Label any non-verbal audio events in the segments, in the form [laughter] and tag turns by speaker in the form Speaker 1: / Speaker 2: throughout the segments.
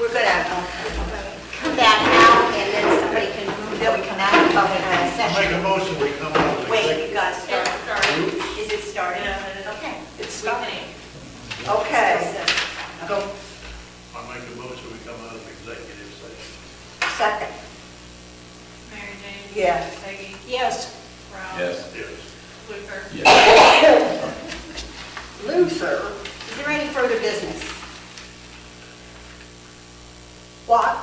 Speaker 1: we're gonna uh, come back out and then somebody can move that we come out of public
Speaker 2: Make a
Speaker 1: session.
Speaker 2: motion, we come out of
Speaker 1: Wait, you
Speaker 2: executive.
Speaker 1: gotta start.
Speaker 3: It's starting.
Speaker 1: Is it starting? Okay.
Speaker 3: It's starting.
Speaker 1: Okay. Go,
Speaker 2: I make a motion, we come out of executive session.
Speaker 1: second.
Speaker 3: Mary Jane?
Speaker 1: Yes.
Speaker 3: Peggy?
Speaker 1: Yes.
Speaker 3: Ralph?
Speaker 4: Yes.
Speaker 2: Yes.
Speaker 3: Luther?
Speaker 4: Yes.
Speaker 1: Luther. Is there any further business? What?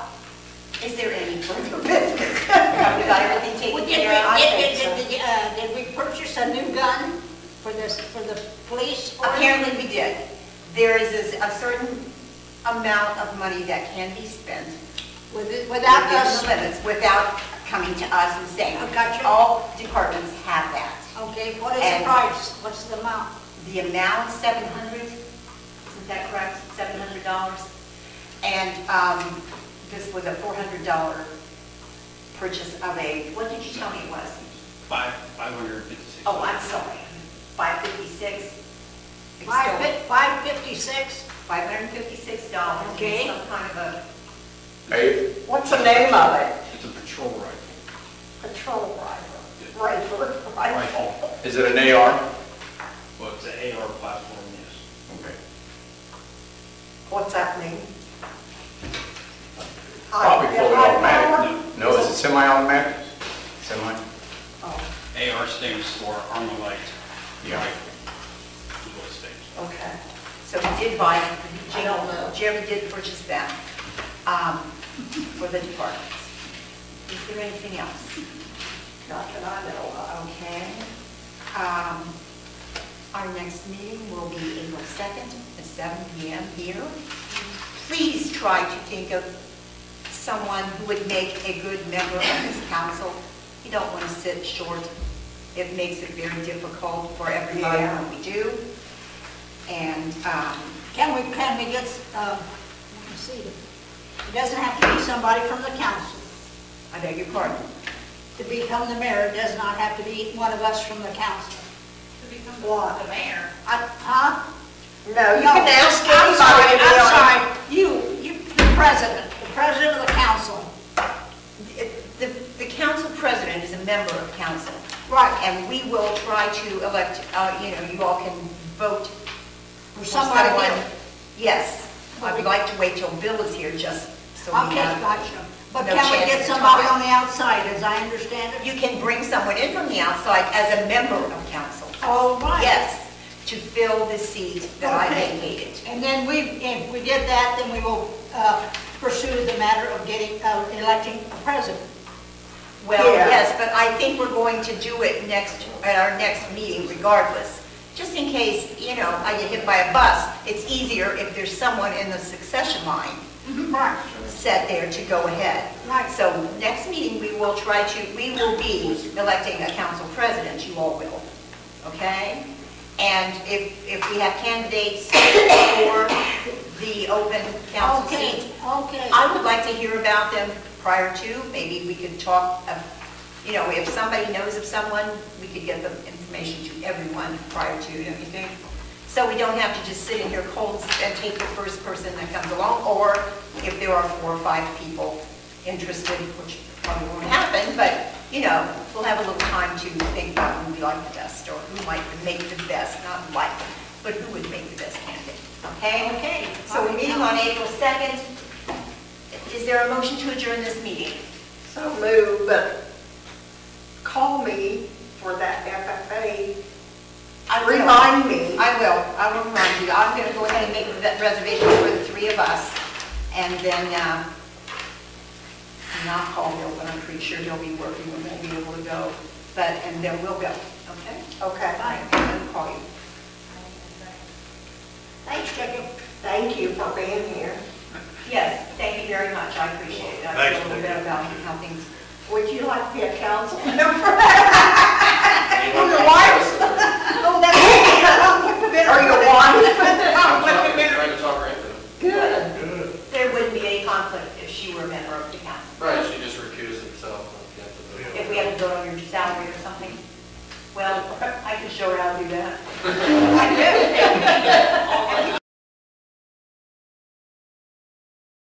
Speaker 1: Is there any further business? [laughs] Have we got everything taken
Speaker 5: Well,
Speaker 1: care of? I
Speaker 5: Did we,
Speaker 1: think so.
Speaker 5: did, did, uh, did we purchase a new gun for this, for the police? or-
Speaker 1: Apparently we did. There is a certain amount of money that can be spent
Speaker 5: with-
Speaker 1: without
Speaker 5: Without
Speaker 1: those
Speaker 5: us,
Speaker 1: limits, without coming to us and saying,
Speaker 5: I got you.
Speaker 1: all departments have that.
Speaker 5: okay, what is
Speaker 1: And-
Speaker 5: the price? What's the amount?
Speaker 1: The amount, seven hundred, isn't that correct? Seven hundred dollars? And um, this was a four hundred dollar purchase of a, what did you tell me it was?
Speaker 6: Five, five hundred and fifty-six.
Speaker 1: Oh, I'm sorry, five fifty-six?
Speaker 5: Five fif- five fifty-six?
Speaker 1: Five hundred and fifty-six dollars.
Speaker 5: Okay.
Speaker 1: Some kind of a
Speaker 4: Hey,
Speaker 1: What's the name of it?
Speaker 6: It's a patrol rifle.
Speaker 1: Patrol rifle. Rifle, rifle.
Speaker 4: is it an AR?
Speaker 6: Well, it's an AR platform, yes.
Speaker 4: Okay.
Speaker 1: What's that mean?
Speaker 4: Probably fully automatic.
Speaker 6: No.
Speaker 4: No, is it semi-automatic? Semi?
Speaker 1: Oh,
Speaker 6: AR stands for Armalite
Speaker 4: Yeah.
Speaker 6: Rifle. is what it stands for.
Speaker 1: okay. So he did buy,
Speaker 5: I don't know.
Speaker 1: Jeremy did purchase that um, for the department. Is there anything else? Not that I know of. Okay. Um, Our next meeting will be April 2nd at seven PM here. Please try to think of someone who would make a good member of this council. You don't want to sit short. It makes it very difficult for everybody
Speaker 5: Yeah.
Speaker 1: when we do. And um,
Speaker 5: Can we, can we get, uh, let me see, it doesn't have to be somebody from the council.
Speaker 1: I beg your pardon.
Speaker 5: To become the mayor, it does not have to be one of us from the council.
Speaker 3: To become
Speaker 5: What?
Speaker 3: the mayor.
Speaker 5: I- Huh?
Speaker 1: No,
Speaker 5: I'm sorry, I'm sorry. You, you, the president, the president of the council.
Speaker 1: The the council president is a member of council.
Speaker 5: Right,
Speaker 1: And we will try to elect, uh, you know, you all can vote
Speaker 5: or
Speaker 1: for
Speaker 5: somebody.
Speaker 1: someone.
Speaker 5: else.
Speaker 1: Yes. I would like to wait till Bill is here just so we
Speaker 5: Okay,
Speaker 1: have.
Speaker 5: gotcha. But
Speaker 1: No
Speaker 5: can we
Speaker 1: chance
Speaker 5: get
Speaker 1: to
Speaker 5: somebody
Speaker 1: talk.
Speaker 5: on the outside, as I understand it?
Speaker 1: You can bring someone in from the outside as a member of council.
Speaker 5: All right.
Speaker 1: Yes, to fill the seat that I
Speaker 5: Okay.
Speaker 1: vacated.
Speaker 5: And then we, if we did that, then we will uh, pursue the matter of getting, uh, electing a president.
Speaker 1: Well,
Speaker 5: Yeah.
Speaker 1: yes, but I think we're going to do it next, at our next meeting regardless. Just in case, you know, I get hit by a bus, it's easier if there's someone in the succession line
Speaker 5: Right.
Speaker 1: set there to go ahead.
Speaker 5: Right.
Speaker 1: So next meeting, we will try to, we will be electing a council president, you all will, okay? And if, if we have candidates for the open council
Speaker 5: Okay,
Speaker 1: seat,
Speaker 5: okay.
Speaker 1: I would like to hear about them prior to, maybe we could talk, of- you know, if somebody knows of someone, we could get the information to everyone prior to, don't you think? So we don't have to just sit in here cold and take the first person that comes along, or if there are four or five people interested, which probably won't happen, but, you know, we'll have a little time to think about who we like the best, or who might make the best, not like, but who would make the best candidate, okay?
Speaker 5: Okay.
Speaker 1: So we're meeting on April 2nd. Is there a motion to adjourn this meeting?
Speaker 7: So move, but call me for that FFA.
Speaker 1: I will.
Speaker 7: Remind me.
Speaker 1: I will, I will remind you. I'm going to go ahead and make that reservation for the three of us, and then, uh, not call Bill, but I'm pretty sure he'll be working, we won't be able to go, but, and then we'll go, okay?
Speaker 7: Okay.
Speaker 1: Fine, I'll call you.
Speaker 5: Thanks, Jacob.
Speaker 7: Thank you for being here.
Speaker 1: Yes, thank you very much, I appreciate it. I feel a little bit about how things,
Speaker 7: Would you like to be a council [laughs]
Speaker 1: [laughs]
Speaker 7: member?
Speaker 1: oh, that's,
Speaker 7: [laughs] Are you one?
Speaker 4: Trying to talk her into it.
Speaker 7: Good.
Speaker 2: Good.
Speaker 1: [laughs] there wouldn't be any conflict if she were a member of the council.
Speaker 4: Right, she just recused herself.
Speaker 1: if we had to vote on your salary [laughs] or something. Well, I can show her how to do that. I